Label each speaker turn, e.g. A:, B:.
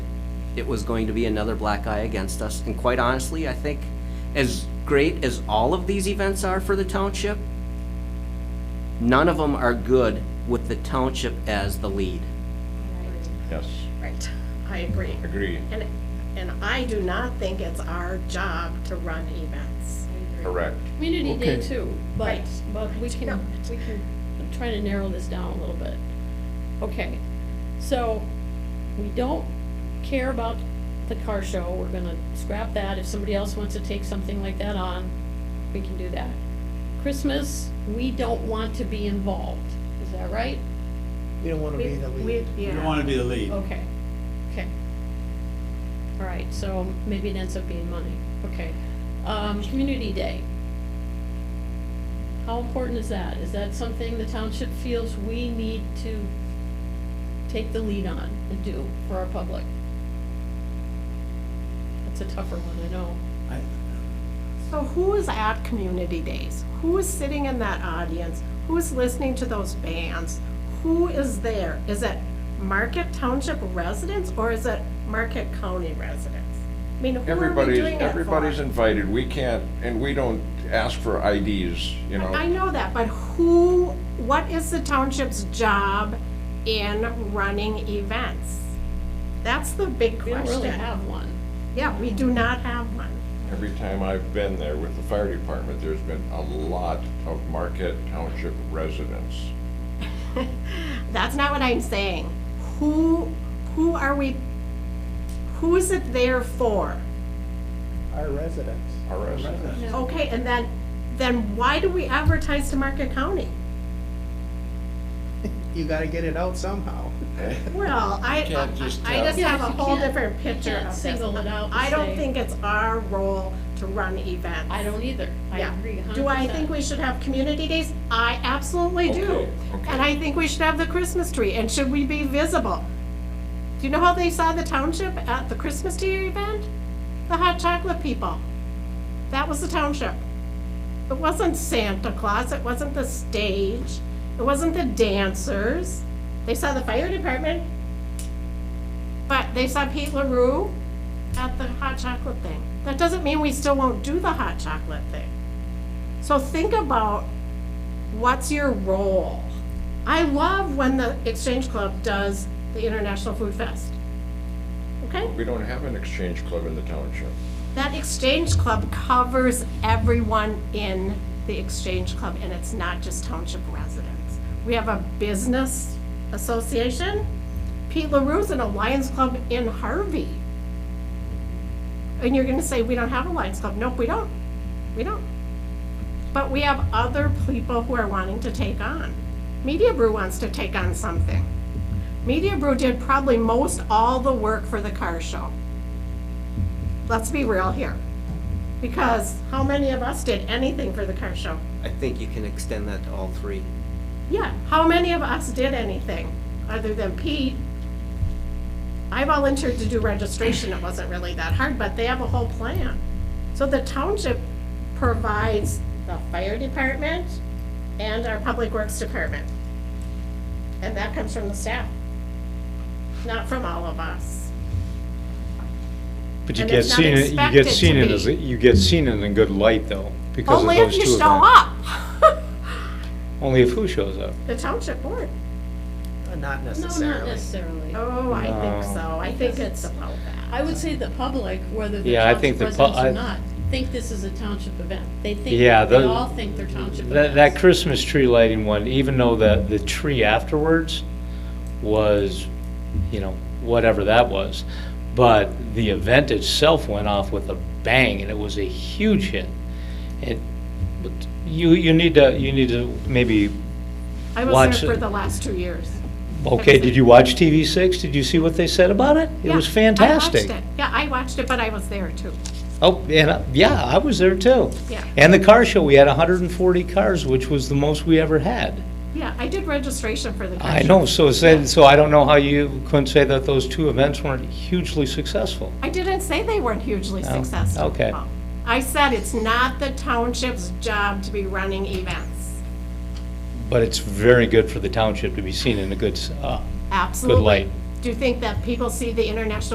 A: it was going to be another black eye against us. And quite honestly, I think as great as all of these events are for the township, none of them are good with the township as the lead.
B: Yes,
C: Right, I agree.
B: agree,
C: And, and I do not think it's our job to run events.
B: correct.
D: Community Day
E: Okay.
D: too, but,
C: Right.
D: but we
C: No.
D: can, we can try to narrow this down a little bit. Okay, so we don't care about the car show, we're gonna scrap that, if somebody else wants to take something like that on, we can do that. Christmas, we don't want to be involved, is that right?
E: We don't want to be the lead.
C: We-
F: You
C: yeah.
F: don't want to be the lead.
D: Okay, okay. All right, so maybe it ends up being money, okay. Um, Community Day. How important is that? Is that something the township feels we need to take the lead on and do for our public? That's a tougher one, I know.
F: I-
C: So who is at community days? Who is sitting in that audience? Who is listening to those bands? Who is there? Is it Market Township residents or is it Market County residents? I mean, who are we
B: Everybody's,
C: doing it for?
B: everybody's invited, we can't, and we don't ask for IDs, you know.
C: I know that, but who, what is the township's job in running events? That's the big
D: We
C: question.
D: don't really have one.
C: Yeah, we do not have one.
B: Every time I've been there with the fire department, there's been a lot of Marquette Township residents.
C: That's not what I'm saying. Who, who are we, who is it there for?
E: Our residents.
B: Our residents.
F: residents.
C: Okay, and then, then why do we advertise to Market County?
E: You got to get it out somehow.
C: Well, I,
B: can't just
C: I
B: tell.
C: just have a
D: Yes, you
C: whole
D: can't-
C: different
D: you
C: picture
D: can't
C: of this.
D: single it out and
C: I don't
D: say-
C: think it's our role to run events.
D: I don't either. I
C: Yeah.
D: agree a hundred
C: Do I think
D: percent.
C: we should have community days? I absolutely do.
B: Okay, okay.
C: And I think we should have the Christmas tree, and should we be visible? Do you know how they saw the township at the Christmas tree event? The hot chocolate people. That was the township. It wasn't Santa Claus, it wasn't the stage, it wasn't the dancers. They saw the fire department, but they saw Pete LaRue at the hot chocolate thing. That doesn't mean we still won't do the hot chocolate thing. So think about what's your role? I love when the Exchange Club does the International Food Fest. Okay?
B: We don't have an exchange club in the township.
C: That Exchange Club covers everyone in the Exchange Club, and it's not just township residents. We have a business association. Pete LaRue's in a Lions Club in Harvey. And you're gonna say, we don't have a Lions Club. Nope, we don't. We don't. But we have other people who are wanting to take on. Media Brew wants to take on something. Media Brew did probably most all the work for the car show let's be real here. Because how many of us did anything for the car show?
A: I think you can extend that to all three.
C: Yeah, how many of us did anything other than Pete? I volunteered to do registration, it wasn't really that hard, but they have a whole plan. So the township provides the fire department and our public works department. And that comes from the staff, not from all of us.
G: But you
C: And
G: get
C: it's not
G: seen, in- you
C: expected
G: get
C: to
G: seen in,
C: be.
G: as a- you get seen in a good light though, because of
C: Only if
G: those two
C: you
G: events.
C: show up.
G: Only if who shows up?
C: The township board.
E: Uh, Not
D: No, not
E: necessarily.
D: necessarily.
C: Oh, I think
G: No.
C: so. I think it's about that.
D: I would say the public, whether they're
G: Yeah, I think
D: township
G: the
D: residents
G: pu-
D: or
G: I-
D: not, think this is a township event. They think,
G: Yeah,
D: they
G: the-
D: all think they're township
G: That,
D: events.
G: that Christmas tree lighting one, even though the, the tree afterwards was, you know, whatever that was, but the event itself went off with a bang, and it was a huge hit. It, but you, you need to, you need to maybe,
C: I
G: Watch
C: was there
G: it.
C: for the last two years.
G: okay, did you watch TV six? Did you see what they said about it? It
C: Yeah,
G: was
C: I
G: fantastic.
C: watched it. Yeah, I watched it, but I was there too.
G: Oh, and, uh, yeah, I was there too.
C: Yeah.
G: And the car show, we had hundred and forty cars, which was the most we ever had.
C: Yeah, I did registration for the car
G: I
C: show.
G: know, so said, so I don't know how you couldn't say that those two events weren't hugely successful.
C: I didn't say they weren't hugely
G: No?
C: successful.
G: Oh, Okay.
C: I said it's not the township's job to be running events.
G: But it's very good for the township to be seen in a good, s- uh,
C: Absolutely.
G: light.
C: Do you think that people see the International